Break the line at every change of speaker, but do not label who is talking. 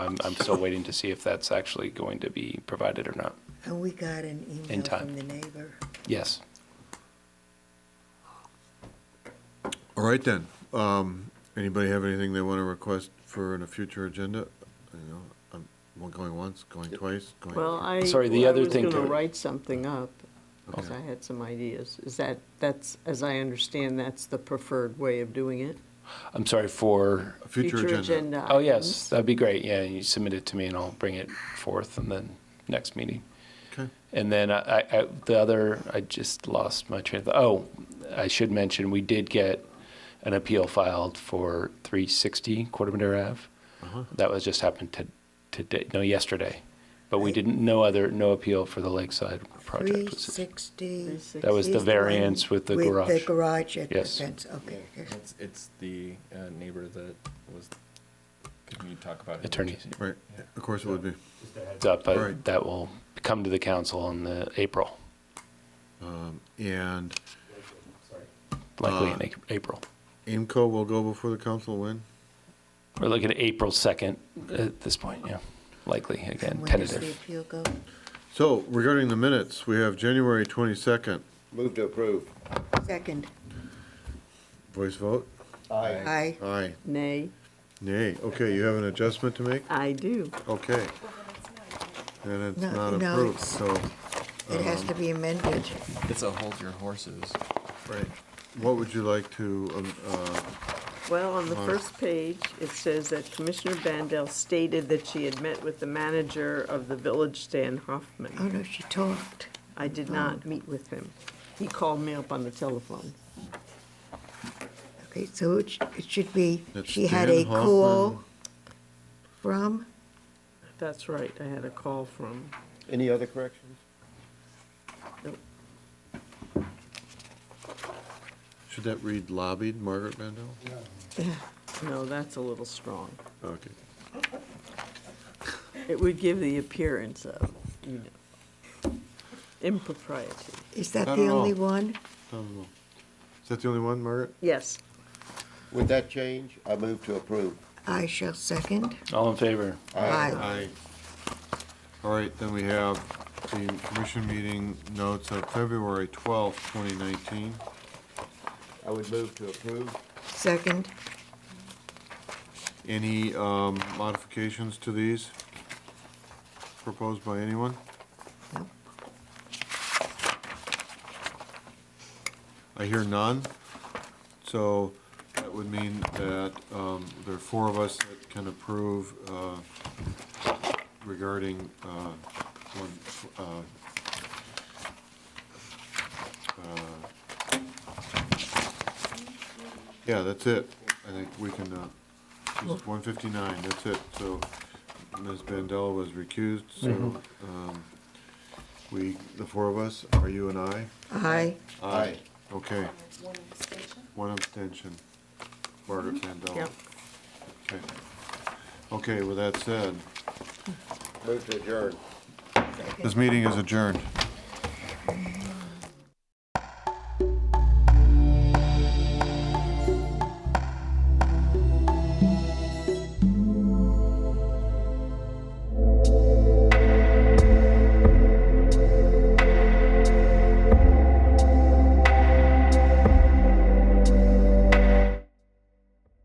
I'm, I'm still waiting to see if that's actually going to be provided or not.
And we got an
In
email
time.
from the neighbor.
Yes.
All right then. Um, Anybody have anything they want to request for in a future agenda? You know, I'm well, going once, going twice, going.
Well, I.
Sorry, the
well,
other thing
I was going
to-
to write something up, because
Okay.
I had some ideas. Is that, that's, as I understand, that's the preferred way of doing it?
I'm sorry for,
A future agenda.
agenda
oh, yes,
items.
that'd be great. Yeah, you submit it to me and I'll bring it forth in the next meeting.
Okay.
And then I, I, the other, I just lost my train of, thought. oh, I should mention, we did get an appeal filed for 360 Quarter Ave. That was just happened to, today, no, yesterday. But we didn't, no other, no appeal for the Lakeside
Three
project. was-
sixty.
That was the
is one
variance with the
With
garage.
the garage at the
Yes.
fence, okay.
Yeah, It's, it's the uh, neighbor that was, could you talk about? him?
Attorneys.
Right, of course it would be.
Heads up, but
Right.
that will come to the council in the April,
And
likely
Uh,
in A- April.
Aimco will go before the council when?
We're looking at April 2nd at this point, yeah, likely, again,
And when does the
tentative.
appeal go?
So regarding the minutes, we have January 22nd.
Move to approve.
Second,
Voice vote?
Aye.
aye.
Aye.
Nay,
Nay. Okay, you have an adjustment to make?
I do.
Okay. And it's
No,
not
no,
approved,
it's-
so.
It has to be amended.
It's a hold your horses.
Right. What would you like to, um, uh,
Well, on the
Right.
first page, it says that Commissioner Bandel stated that she had met with the manager of the village, Stan
Oh,
Hoffman.
no, she talked.
I did not meet with him. Oh. He called me up on the telephone.
Okay, so it sh- it should be,
That's
she had
Dan
a call from,
That's right, I had a call from,
Any other corrections?
should that read lobbied Margaret Mandel?
yeah,
no, that's a little strong.
Okay.
It would give the appearance of, you know, impropriety.
is that
Not
the
at all.
only one?
Um, Is that the only one, Margaret?
Yes.
With that change, I move to approve.
I shall second.
All in favor?
Aye. All right, then we have the commission meeting notes of February twelfth, twenty nineteen.
I would move to approve.
Second,
Any um, modifications to these proposed by anyone?
No.
I hear none, so that would mean that um, there are four of us that can approve uh, regarding uh, one, uh, uh, yeah, that's it. I think we can, uh, this is 159, that's it. So Ms. Bandel was recused, so um, we, the four of us, are you and I?
aye.
Aye.
Okay. One abstention. Margaret Mandel.
Yep.
Okay. Okay, with that said,
Move to adjourn.
this meeting is adjourned.